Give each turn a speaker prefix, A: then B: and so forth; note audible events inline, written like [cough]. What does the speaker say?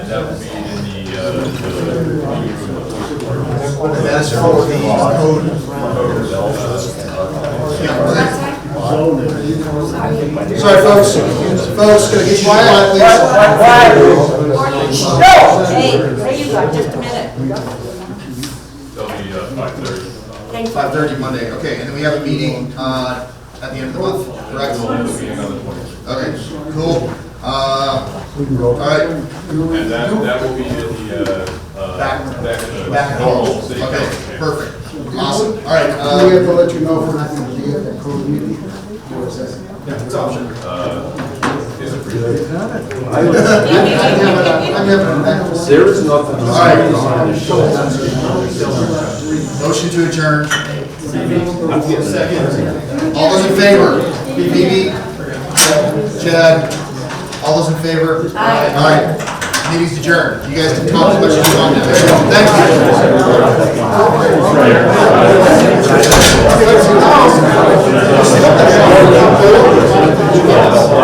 A: that would be in the, uh,
B: And that's for the code. Yeah. Sorry, folks, folks, gonna get you quiet, please.
C: No, hey, hey, you got just a minute.
A: they'll be uh, five thirty.
C: Thank you.
B: Five thirty Monday, okay, and then we have a meeting, uh, at the end of the month, correct? Okay, cool, uh, all right,
A: And that, that will be in the, uh, uh,
B: Back-
A: back, uh,
B: back
A: normal
B: home,
A: city council
B: okay,
A: chamber.
B: perfect, awesome, all right,
D: Do we have to
B: uh,
D: let you know if we're not gonna be at that code meeting? Or is that-
B: it's optional.
A: Uh, is it free? [laughs]
D: I'm having a- I'm having a mental-
E: There is nothing.
B: All right. Motion to adjourn. Second. All those in favor? Bibi? Chad? All those in favor? Aye. All right, meeting's adjourned. You guys can talk as much as you want now. Thank you.